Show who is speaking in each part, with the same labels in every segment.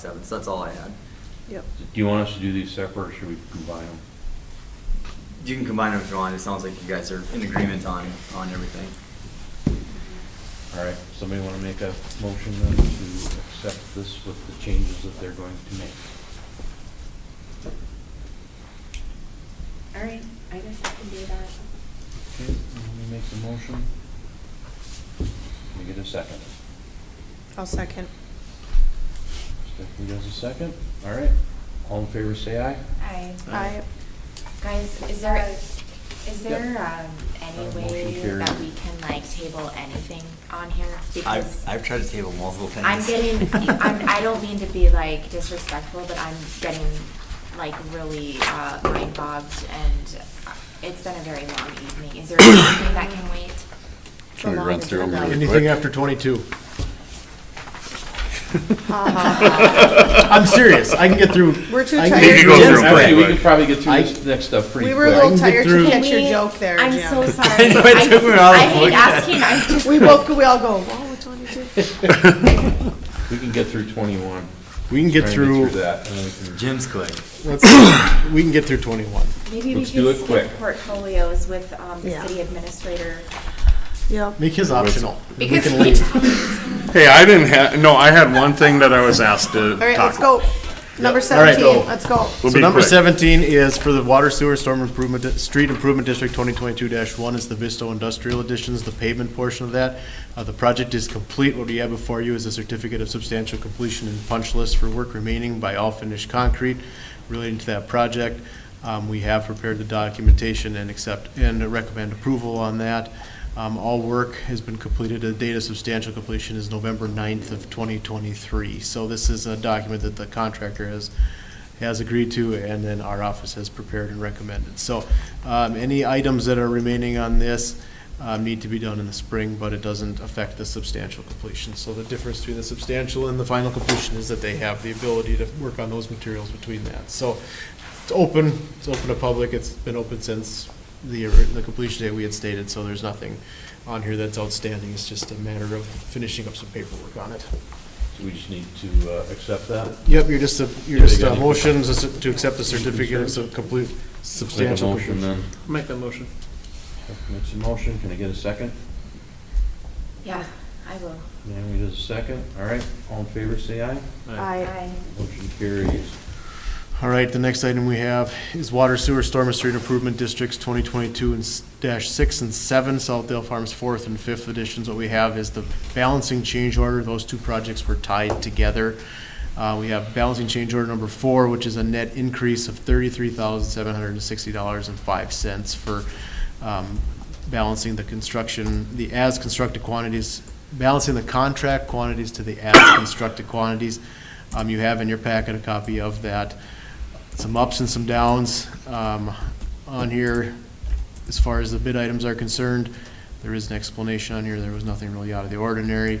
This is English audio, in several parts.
Speaker 1: seven, so that's all I had.
Speaker 2: Yep.
Speaker 3: Do you want us to do these separate, or should we combine them?
Speaker 1: You can combine them if you want, it sounds like you guys are in agreement on, on everything.
Speaker 3: All right, somebody want to make a motion then to accept this with the changes that they're going to make?
Speaker 4: All right, I guess I can do that.
Speaker 3: Okay, let me make the motion. Let me get a second.
Speaker 2: I'll second.
Speaker 3: Stephanie does a second, all right. All in favor, say aye.
Speaker 4: I,
Speaker 2: I,
Speaker 4: guys, is there, is there, um, any
Speaker 3: Uh, motion
Speaker 4: way
Speaker 3: carried.
Speaker 4: that we can like table anything on here? Because
Speaker 1: I've, I've tried to table multiple things.
Speaker 4: I'm getting, I'm, I don't mean to be like disrespectful, but I'm getting like really, uh, mind bogged and it's been a very long evening. Is there anything that can wait?
Speaker 5: Can we run through them really quick?
Speaker 6: Anything after 22.
Speaker 2: Uh-huh.
Speaker 6: I'm serious, I can get through.
Speaker 2: We're too
Speaker 6: I
Speaker 2: tired.
Speaker 6: can get
Speaker 5: You can go
Speaker 6: Jim's
Speaker 5: through 'em
Speaker 6: plan.
Speaker 3: Actually, we could probably get through
Speaker 6: I-
Speaker 3: this next stuff pretty
Speaker 2: we
Speaker 3: quick.
Speaker 2: were a little tired
Speaker 6: through-
Speaker 2: to
Speaker 4: Can
Speaker 2: catch your
Speaker 4: we-
Speaker 2: joke there,
Speaker 4: I'm so
Speaker 2: Jim.
Speaker 4: sorry.
Speaker 1: I know, it took me a while
Speaker 4: I
Speaker 1: to
Speaker 4: hate
Speaker 1: look at
Speaker 4: asking, I just.
Speaker 2: We both, we all go, wow, which one you do?
Speaker 3: We can get through twenty-one.
Speaker 6: We can
Speaker 3: Try
Speaker 6: get
Speaker 3: and
Speaker 6: through,
Speaker 3: That, and then we can-
Speaker 1: Jim's quick.
Speaker 6: let's- we can get through 21.
Speaker 4: Maybe we
Speaker 3: Let's do
Speaker 4: could
Speaker 3: it
Speaker 4: skip
Speaker 3: quick.
Speaker 4: portfolios with um, the
Speaker 2: Yeah.
Speaker 4: city administrator.
Speaker 2: Yep.
Speaker 6: Make his optional. We
Speaker 4: Because
Speaker 6: can
Speaker 4: we,
Speaker 6: leave.
Speaker 5: Hey, I didn't have, no, I had one thing that I was asked to
Speaker 2: All right,
Speaker 5: talk
Speaker 2: let's
Speaker 5: about.
Speaker 2: go. Number
Speaker 6: All right,
Speaker 2: seventeen,
Speaker 6: go.
Speaker 2: let's go.
Speaker 5: We'll
Speaker 6: So
Speaker 5: be
Speaker 6: number
Speaker 5: quick.
Speaker 6: 17 is for the water sewer storm improvement, Di- street improvement district 2022-1 is the Visto Industrial Additions, the pavement portion of that. Uh, The project is complete. What we have before you is a certificate of substantial completion and punch list for work remaining by all finished concrete relating to that project. Um, We have prepared the documentation and accept, and recommend approval on that. Um, All work has been completed. The date of substantial completion is November 9th of 2023. So this is a document that the contractor has has agreed to, and then our office has prepared and recommended. So um, any items that are remaining on this um, need to be done in the spring, but it doesn't affect the substantial completion. So the difference between the substantial and the final completion is that they have the ability to work on those materials between that. So it's open, it's open to public, it's been open since the, the completion date we had stated, so there's nothing on here that's outstanding, it's just a matter of finishing up some paperwork on it.
Speaker 3: so we just need to uh, accept that.
Speaker 6: Yep, you're just, a- you're
Speaker 3: Yeah, they
Speaker 6: just
Speaker 3: got
Speaker 6: uh,
Speaker 3: any-
Speaker 6: motions to s- to accept the certificate of sub- complete,
Speaker 3: Make a
Speaker 6: substantial.
Speaker 3: motion then.
Speaker 6: Make that motion.
Speaker 3: Make some motion, can I get a second?
Speaker 4: yeah, I will.
Speaker 3: Naomi does a second, all right, all in favor, say aye.
Speaker 2: I,
Speaker 3: Motion carries.
Speaker 6: All right, the next item we have is water sewer storm and street improvement districts twenty twenty-two and s- dash six and seven, Southdale Farms fourth and fifth editions. What we have is the balancing change order. Those two projects were tied together. Uh, we have balancing change order number four, which is a net increase of thirty-three thousand seven hundred and sixty dollars and five cents for, um, balancing the construction, the as-constructed quantities, balancing the contract quantities to the as-constructed quantities. Um, you have in your packet a copy of that. Some ups and some downs, um, on here. As far as the bid items are concerned, there is an explanation on here. There was nothing really out of the ordinary.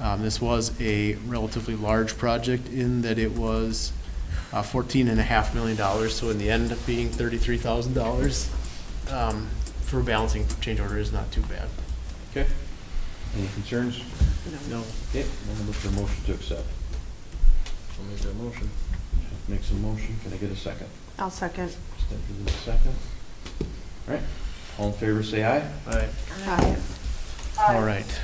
Speaker 6: Um, this was a relatively large project in that it was, uh, fourteen and a half million dollars, so in the end up being thirty-three thousand dollars um, for balancing change order is not too bad.
Speaker 3: Okay. Any concerns?
Speaker 6: No.
Speaker 3: Okay, I'm gonna look for a motion to accept. I'll make that motion. Make some motion, can I get a second?
Speaker 2: I'll second.
Speaker 3: Stephanie does a second. All right, all in favor, say aye.
Speaker 6: Aye.
Speaker 2: I,
Speaker 3: All
Speaker 6: All right.
Speaker 3: right,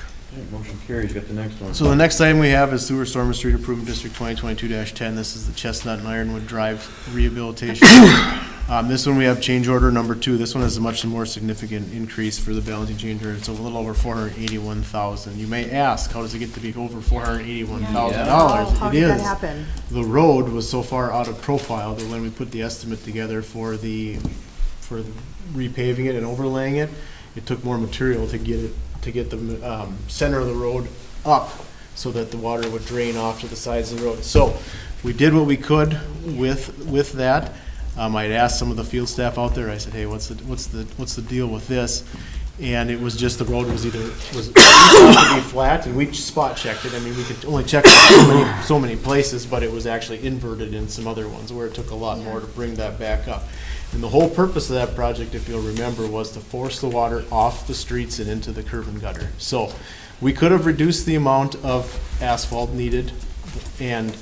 Speaker 3: Motion carries, got the next one.
Speaker 6: So the next item we have is sewer storm and street improvement district twenty twenty-two ten. This is the Chestnut and Ironwood Drive rehabilitation. Um, this one we have change order number two. This one is a much more significant increase for the balancing change order. It's a little over four hundred eighty-one thousand. You may ask, how does it get to be over four hundred eighty-one thousand dollars?
Speaker 2: oh, how did that happen?
Speaker 6: the road was so far out of profile that when we put the estimate together for the, for repaving it and overlaying it, it took more material to get it, to get the, um, center of the road up so that the water would drain off to the sides of the road. So we did what we could with, with that. Um, I'd asked some of the field staff out there, I said, hey, what's the, what's the, what's the deal with this? And it was just the road was either, was supposed to be flat, and we spot checked it, I mean, we could only check so many, so many places, but it was actually inverted in some other ones, where it took a lot more to bring that back up. And the whole purpose of that project, if you'll remember, was to force the water off the streets and into the curb and gutter. So, we could have reduced the amount of asphalt needed, and